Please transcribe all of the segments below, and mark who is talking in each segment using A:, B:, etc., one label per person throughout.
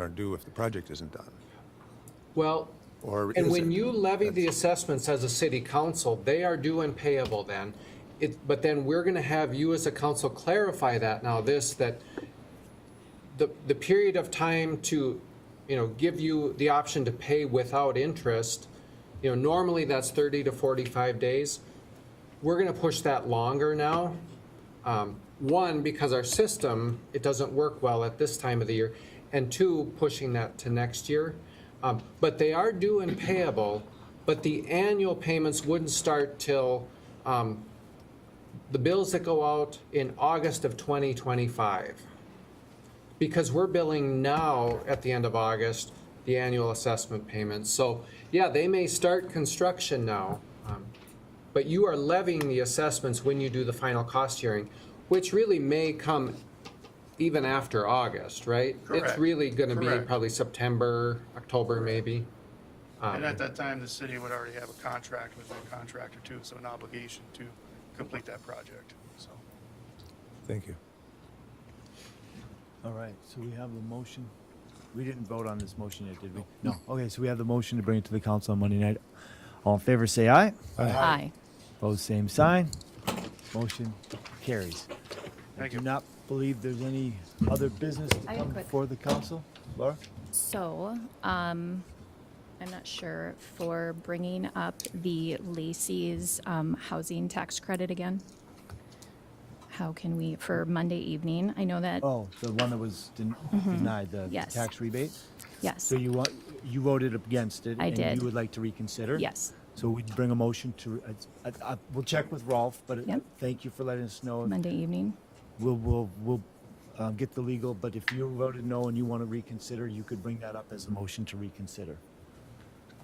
A: are due if the project isn't done.
B: Well,
A: Or
B: and
A: is
B: when
A: it?
B: you levy the assessments as a city council, they are due and payable then. It, but then we're gonna have you as a council clarify that now, this, that the, the period of time to, you know, give you the option to pay without interest, you know, normally that's thirty to forty-five days. We're gonna push that longer now. Um, One, because our system, it doesn't work well at this time of the year, and two, pushing that to next year. Um, But they are due and payable, but the annual payments wouldn't start till um, the bills that go out in August of 2025. Because we're billing now at the end of August, the annual assessment payments. So, yeah, they may start construction now, um, but you are levying the assessments when you do the final cost hearing, which really may come even after August, right? It's
C: Correct.
B: really gonna be
C: Correct.
B: probably September, October maybe.
C: And at that time, the city would already have a contract with that contractor too, so an obligation to complete that project, so.
A: Thank you.
D: All right, so we have the motion. We didn't vote on this motion yet, did we? No. Okay, so we have the motion to bring it to the council on Monday night. All in favor, say aye.
E: Aye.
D: Opposed, same sign. Motion carries. I
C: Thank
D: do
C: you.
D: not believe there's any other business to
E: I got
D: come
E: quick.
D: before the council. Laura?
E: So, um, I'm not sure for bringing up the Lacey's, um, housing tax credit again. How can we, for Monday evening, I know that,
D: Oh, the one that was den- denied, the
E: Mm-hmm. Yes.
D: tax rebate?
E: yes,
D: So you want, you voted against it?
E: I
D: And
E: did.
D: you would like to reconsider?
E: yes,
D: So we'd bring a motion to, I, I, I- we'll check with Rolf, but uh,
E: Yep.
D: thank you for letting us know.
E: Monday evening.
D: We'll, we'll, we'll um, get the legal, but if you voted no and you want to reconsider, you could bring that up as a motion to reconsider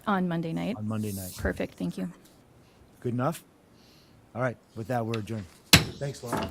E: On Monday night?
D: on Monday night.
E: Perfect, thank you.
D: Good enough? All right, with that, we're adjourned. Thanks, Lauren.